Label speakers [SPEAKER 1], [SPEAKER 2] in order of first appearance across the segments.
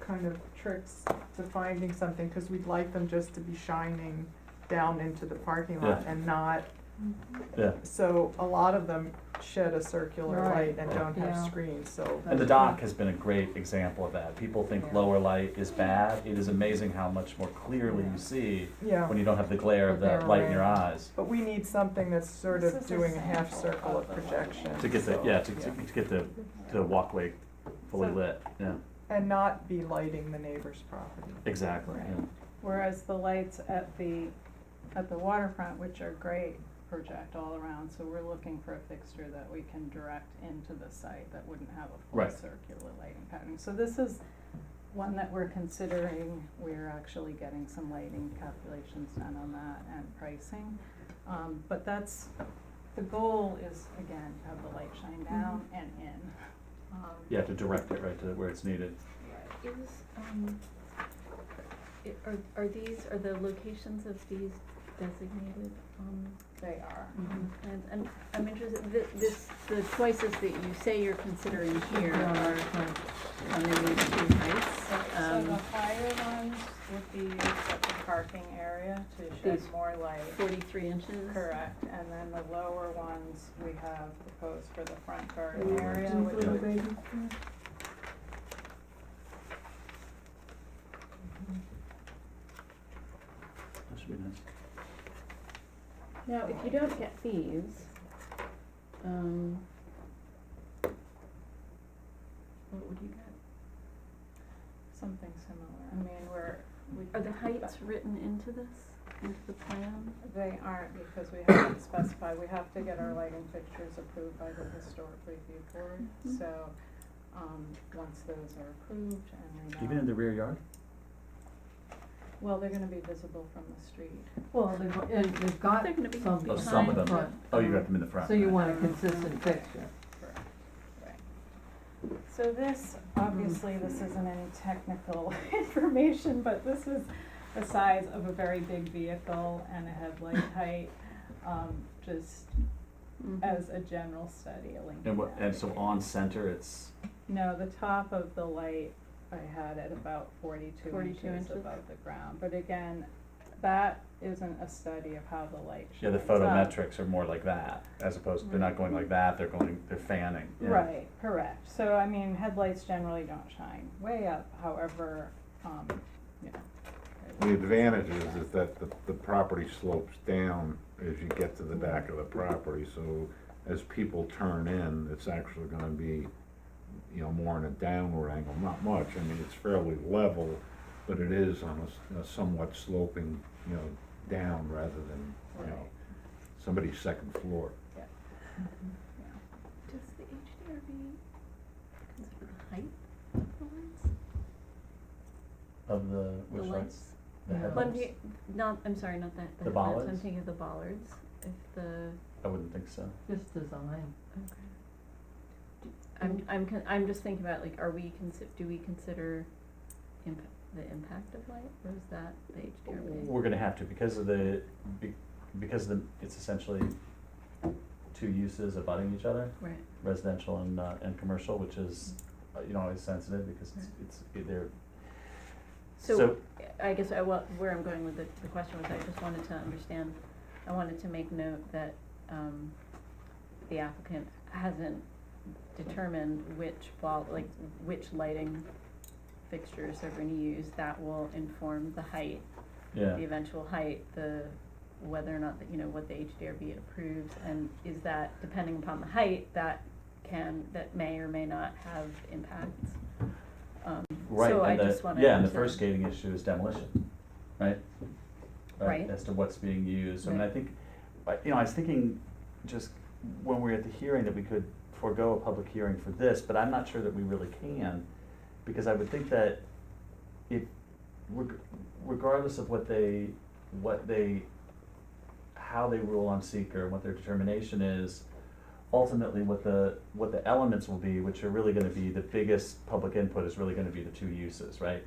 [SPEAKER 1] kind of tricks to finding something, because we'd like them just to be shining down into the parking lot and not,
[SPEAKER 2] Yeah.
[SPEAKER 1] so a lot of them shed a circular
[SPEAKER 3] Right.
[SPEAKER 1] light and don't have
[SPEAKER 3] Yeah.
[SPEAKER 1] screens, so.
[SPEAKER 2] And the dock has been a great example of that. People think
[SPEAKER 3] Yeah.
[SPEAKER 2] lower light is bad. It is amazing how much more clearly
[SPEAKER 3] Yeah.
[SPEAKER 2] you see
[SPEAKER 1] Yeah,
[SPEAKER 2] when you don't have the glare of
[SPEAKER 3] The glare
[SPEAKER 2] that light in your
[SPEAKER 3] around.
[SPEAKER 2] eyes.
[SPEAKER 1] but we need something that's sort
[SPEAKER 3] This
[SPEAKER 1] of
[SPEAKER 3] is a
[SPEAKER 1] doing a half
[SPEAKER 3] sample
[SPEAKER 1] circle of
[SPEAKER 3] of the lighting.
[SPEAKER 1] projection.
[SPEAKER 2] To get the,
[SPEAKER 1] so-
[SPEAKER 2] yeah, to, to to get the, the walkway fully
[SPEAKER 3] So-
[SPEAKER 2] lit, yeah,
[SPEAKER 1] And not be lighting the neighbor's property.
[SPEAKER 2] exactly,
[SPEAKER 3] Right.
[SPEAKER 2] yeah.
[SPEAKER 3] Whereas the lights at the, at the waterfront, which are great, project all around, so we're looking for a fixture that we can direct into the site that wouldn't have a full
[SPEAKER 2] Right.
[SPEAKER 3] circular lighting pattern. So this is one that we're considering, we're actually getting some lighting calculations done on that and pricing. Um, but that's, the goal is, again, to have the light shine down and in. Um,
[SPEAKER 2] You have to direct it right to where it's needed.
[SPEAKER 4] Is, um, i- are, are these, are the locations of these designated, um,
[SPEAKER 3] They are.
[SPEAKER 4] on the plans? I'm, I'm interested, thi- this, the choices that you say you're considering here are on the new two heights.
[SPEAKER 3] So- So the
[SPEAKER 4] um,
[SPEAKER 3] higher ones would be used at the parking area to shed
[SPEAKER 4] These-
[SPEAKER 3] more light,
[SPEAKER 4] Forty-three inches.
[SPEAKER 3] correct, and then the lower ones we have proposed for the front garden area, which
[SPEAKER 2] Yeah.
[SPEAKER 3] would
[SPEAKER 2] That should be nice.
[SPEAKER 4] Now, if you don't get these, um, what would you get?
[SPEAKER 3] something similar, I mean, we're, we.
[SPEAKER 4] Are the heights written into this, into the plan?
[SPEAKER 3] They aren't, because we haven't specified, we have to get our lighting fixtures approved by the historic review board,
[SPEAKER 4] Mhm.
[SPEAKER 3] so, um, once those are approved and we know.
[SPEAKER 2] Even in the rear yard?
[SPEAKER 3] Well, they're gonna be visible from the street.
[SPEAKER 5] Well, they've, and they've got
[SPEAKER 4] They're gonna be
[SPEAKER 5] some
[SPEAKER 4] behind.
[SPEAKER 2] some of
[SPEAKER 5] behind,
[SPEAKER 2] them,
[SPEAKER 5] but,
[SPEAKER 2] Oh, you got them in the front.
[SPEAKER 5] so you
[SPEAKER 2] right.
[SPEAKER 5] want a consistent picture.
[SPEAKER 3] So this, obviously, this isn't any technical information, but this is the size of a very big vehicle and a headlight height, um, just
[SPEAKER 4] Mhm.
[SPEAKER 3] as a general study, a Lincoln
[SPEAKER 2] And what, and so
[SPEAKER 3] Navigator.
[SPEAKER 2] on center, it's,
[SPEAKER 3] No, the top of the light I had at about forty-two
[SPEAKER 4] 42
[SPEAKER 3] inches
[SPEAKER 4] inches?
[SPEAKER 3] above the ground, but again, that isn't a study of how the light shines
[SPEAKER 2] yeah, the
[SPEAKER 3] up.
[SPEAKER 2] photometrics are more like that, as opposed, they're not going like that, they're going, they're fanning. yeah.
[SPEAKER 3] Right, correct. So, I mean, headlights generally don't shine way up, however, um, you know.
[SPEAKER 6] The advantage is, is that the, the property slopes down as you get to the back of the property, so as people turn in, it's actually gonna be, you know, more in a downward angle, not much, I mean, it's fairly level, but it is on a s- a somewhat sloping, you know, down rather than, you know,
[SPEAKER 3] Right.
[SPEAKER 6] somebody's second floor.
[SPEAKER 4] Does the HDRB consider the height of the lights?
[SPEAKER 2] Of the,
[SPEAKER 4] The
[SPEAKER 2] which lights?
[SPEAKER 4] lights?
[SPEAKER 2] The
[SPEAKER 5] Yeah.
[SPEAKER 4] Well, I'm
[SPEAKER 2] headlights?
[SPEAKER 4] thinking, not, I'm sorry, not that, the
[SPEAKER 2] The
[SPEAKER 4] headlights, I'm
[SPEAKER 2] bollards?
[SPEAKER 4] thinking of the bollards, if the,
[SPEAKER 2] I wouldn't think so.
[SPEAKER 5] Just design.
[SPEAKER 4] okay. Do- I'm, I'm, con- I'm just thinking about like, are we consi- do we consider imp- the impact of light, or is that the HDRB?
[SPEAKER 2] We're gonna have to, because of the, be- because of the, it's essentially two uses abutting each other,
[SPEAKER 4] Right,
[SPEAKER 2] residential and, uh, and commercial, which is, uh, you know, always sensitive because it's, it's, they're.
[SPEAKER 4] Mm-hmm. so, I guess I, well, where I'm going with the, the question was, I just wanted to understand, I wanted to make note that, um, the applicant hasn't determined which ball, like, which lighting fixtures they're gonna use, that will inform the height
[SPEAKER 2] Yeah,
[SPEAKER 4] the eventual height, the, whether or not, that, you know, what the HDRB approves, and is that, depending upon the height, that can, that may or may not have impacts? Um,
[SPEAKER 2] right,
[SPEAKER 4] So I
[SPEAKER 2] and
[SPEAKER 4] just
[SPEAKER 2] the,
[SPEAKER 4] wanted to.
[SPEAKER 2] yeah, and the first gating issue is demolition, right?
[SPEAKER 4] Right.
[SPEAKER 2] As to what's being used, I mean, I
[SPEAKER 4] Right.
[SPEAKER 2] think, I- you know, I was thinking just when we were at the hearing that we could forego a public hearing for this, but I'm not sure that we really can. Because I would think that it, reg- regardless of what they, what they, how they rule on seeker and what their determination is, ultimately what the, what the elements will be, which are really gonna be, the biggest public input is really gonna be the two uses, right?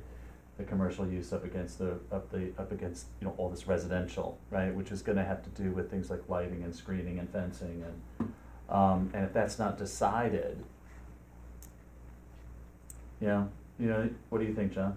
[SPEAKER 2] The commercial use up against the, up the, up against, you know, all this residential, right, which is gonna have to do with things like lighting and screening and fencing and, um, and if that's not decided, you know, You know, what do you think, John?